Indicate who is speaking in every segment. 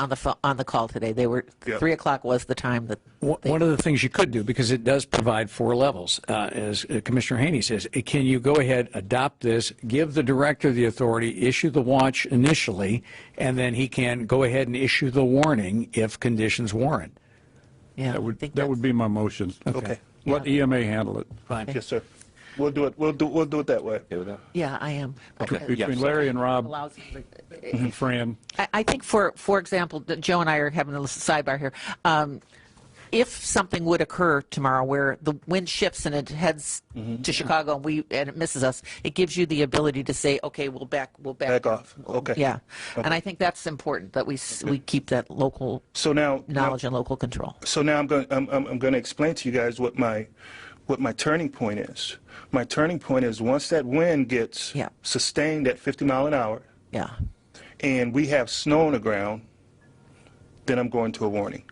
Speaker 1: on the, pho- on the call today. They were,
Speaker 2: Yep.
Speaker 1: 3 o'clock was the time that,
Speaker 3: One one of the things you could do, because it does provide four levels, uh, as Commissioner Haney says, eh, can you go ahead, adopt this, give the director the authority, issue the watch initially, and then he can go ahead and issue the warning if conditions warrant?
Speaker 1: yeah.
Speaker 4: That would,
Speaker 1: I think
Speaker 4: that would
Speaker 1: that's-
Speaker 4: be my motion.
Speaker 2: Okay.
Speaker 4: Let EMA handle it.
Speaker 2: Yes, sir. We'll do it, we'll do, we'll do it that way.
Speaker 5: Okay with that?
Speaker 1: Yeah, I am.
Speaker 4: Between-
Speaker 1: Because
Speaker 4: Between Larry and
Speaker 1: it
Speaker 4: Rob
Speaker 1: allows-
Speaker 4: and Fran.
Speaker 1: I, I think for, for example, that Joe and I are having a little sidebar here. Um, if something would occur tomorrow where the wind shifts and it heads to Chicago and we, and it misses us, it gives you the ability to say, okay, we'll back, we'll back.
Speaker 2: Back
Speaker 1: down."
Speaker 2: off. Okay.
Speaker 1: Yeah. And I think that's important, that we, s- we keep that local
Speaker 2: So now. now-
Speaker 1: knowledge and local control.
Speaker 2: so now I'm going I'm, I'm, I'm going to explain to you guys what my what my turning point is. My turning point is once that wind gets
Speaker 1: Yeah.
Speaker 2: sustained at 50 mile an hour
Speaker 1: Yeah.
Speaker 2: and we have snow on the ground, then I'm going to a warning.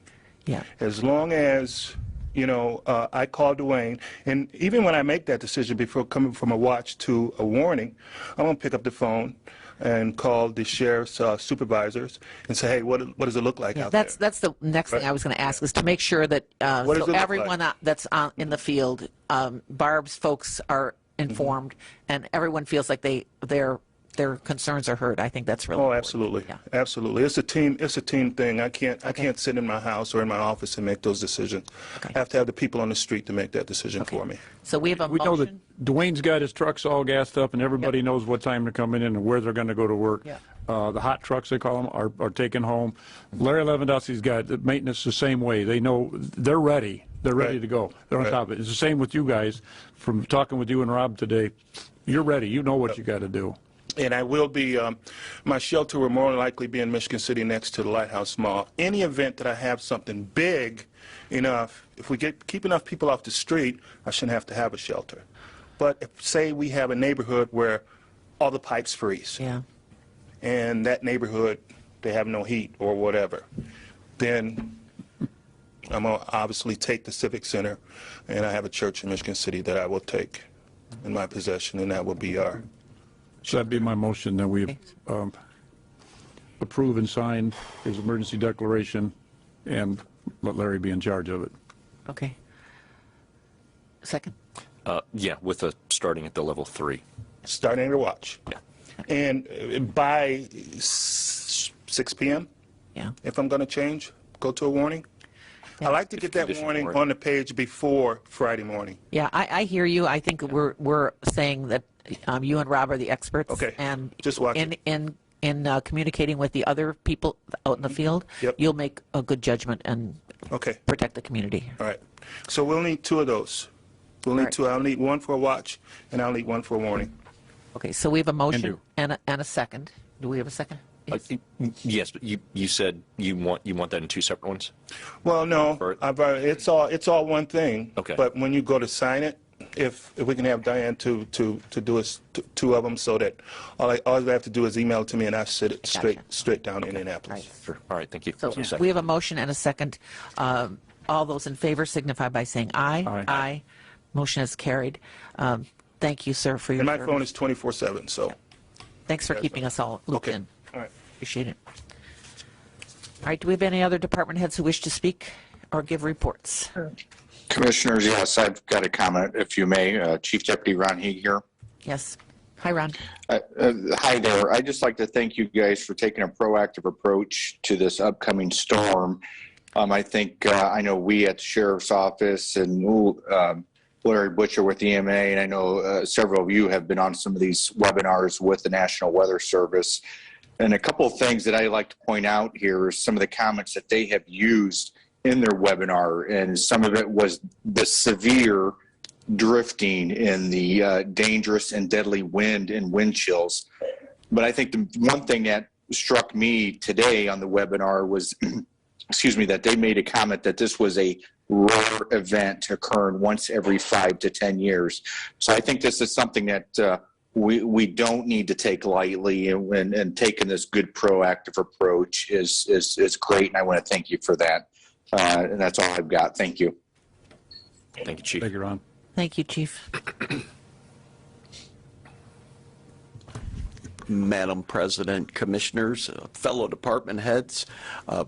Speaker 1: Yeah.
Speaker 2: As long as you know, uh, I call Dwayne, and even when I make that decision before coming from a watch to a warning, I'm gonna pick up the phone and call the sheriff's uh, supervisors and say, "Hey, what what does it look like
Speaker 1: Yeah,
Speaker 2: out
Speaker 1: that's
Speaker 2: there?"
Speaker 1: that's the next thing I was going to ask is to make sure that uh,
Speaker 2: What
Speaker 1: so
Speaker 2: does it look like?
Speaker 1: everyone that- that's on, in the field, um, Barb's folks are
Speaker 2: Mm-hmm.
Speaker 1: informed, and everyone feels like they their their concerns are heard. I think that's really
Speaker 2: Oh,
Speaker 1: important.
Speaker 2: absolutely,
Speaker 1: Yeah.
Speaker 2: absolutely. It's a team. It's a team thing. I can't. I can't sit in my house or in my office and make those decisions.
Speaker 1: Okay.
Speaker 2: I have to have the people on the street to make that decision for me.
Speaker 1: So we have a
Speaker 4: We know that
Speaker 1: motion.
Speaker 4: Dwayne's got his trucks all gassed up and everybody knows what time they're coming in and where they're going to go to work.
Speaker 1: Yeah.
Speaker 4: Uh, the hot trucks, they call them, are, are taken home. Larry Lewandowski's got the maintenance the same way. They know, they're ready. They're ready
Speaker 2: Right.
Speaker 4: to go. They're on
Speaker 2: Right.
Speaker 4: top of it. It's the same with you guys. From talking with you and Rob today, you're ready. You know what you got to do.
Speaker 2: And I will be, um, my shelter will more than likely be in Michigan City next to the Lighthouse Mall. Any event that I have something big enough, if we get, keep enough people off the street, I shouldn't have to have a shelter. But if, say we have a neighborhood where all the pipes freeze,
Speaker 1: Yeah.
Speaker 2: and that neighborhood, they have no heat or whatever, then I'm gonna obviously take the Civic Center, and I have a church in Michigan City that I will take in my possession, and that will be our
Speaker 4: So that'd be my motion, that we um, approve and sign his emergency declaration and let Larry be in charge of it.
Speaker 1: Okay. Second.
Speaker 5: Uh, Yeah, with a, starting at the level three.
Speaker 2: starting to watch.
Speaker 5: Yeah.
Speaker 2: And uh, by s- 6 p.m.,
Speaker 1: Yeah.
Speaker 2: if I'm going to change, go to a warning. I like to get that
Speaker 5: Condition
Speaker 2: warning
Speaker 5: warning.
Speaker 2: on the page before Friday morning.
Speaker 1: Yeah, I, I hear you. I think we're we're saying that um, you and Rob are the experts.
Speaker 2: Okay.
Speaker 1: And
Speaker 2: Just watch
Speaker 1: in
Speaker 2: it.
Speaker 1: in in uh, communicating with the other people out in the field,
Speaker 2: Mm-hmm. Yep.
Speaker 1: you'll make a good judgment and
Speaker 2: Okay,
Speaker 1: protect the community.
Speaker 2: all right. So we'll need two of those. We'll need
Speaker 1: right.
Speaker 2: two. I'll need one for a watch, and I'll need one for a warning.
Speaker 1: Okay, so we have a motion
Speaker 4: do.
Speaker 1: and a, and a second. Do we have a second?
Speaker 5: Uh, y- Yes, but you, you said you want, you want that in two separate ones?
Speaker 2: Well, no,
Speaker 5: Or-
Speaker 2: I've, uh, it's all, it's all one thing.
Speaker 5: Okay.
Speaker 2: But when you go to sign it, if, if we can have Diane to, to, to do us, t- two of them so that all I, all I have to do is email it to me and I sit it straight,
Speaker 1: Gotcha.
Speaker 2: straight down to Indianapolis.
Speaker 1: Right.
Speaker 5: Sure. All right, thank you.
Speaker 1: So
Speaker 5: Second.
Speaker 1: we have a motion and a second. Um, All those in favor signify by saying aye.
Speaker 4: Aye.
Speaker 1: Aye. Motion is carried. Um, Thank you, sir, for your
Speaker 2: And my phone
Speaker 1: service.
Speaker 2: is 24/7, so,
Speaker 1: Thanks for keeping us all looped
Speaker 2: okay.
Speaker 1: in.
Speaker 2: All right.
Speaker 1: Appreciate it. All right, do we have any other department heads who wish to speak or give reports?
Speaker 6: Commissioners, yes, I've got a comment, if you may. Uh, Chief Deputy Ron Heeg here.
Speaker 1: Yes. Hi, Ron.
Speaker 6: Uh, uh, Hi there. I'd just like to thank you guys for taking a proactive approach to this upcoming storm. Um, I think, uh, I know we at the Sheriff's Office and ooh, um, Larry Butcher with EMA, and I know uh, several of you have been on some of these webinars with the National Weather Service. And a couple of things that I like to point out here are some of the comments that they have used in their webinar, and some of it was the severe drifting and the uh, dangerous and deadly wind and wind chills. But I think the one thing that struck me today on the webinar was, excuse me, that they made a comment that this was a rare event occurring once every five to 10 years. So I think this is something that uh, we, we don't need to take lightly and, and, and taking this good proactive approach is, is, is great. And I want to thank you for that. Uh, and that's all I've got. Thank you.
Speaker 5: Thank you, Chief.
Speaker 4: Thank you, Ron.
Speaker 1: Thank you, Chief.
Speaker 7: Madam President, Commissioners, uh, fellow department heads. Uh,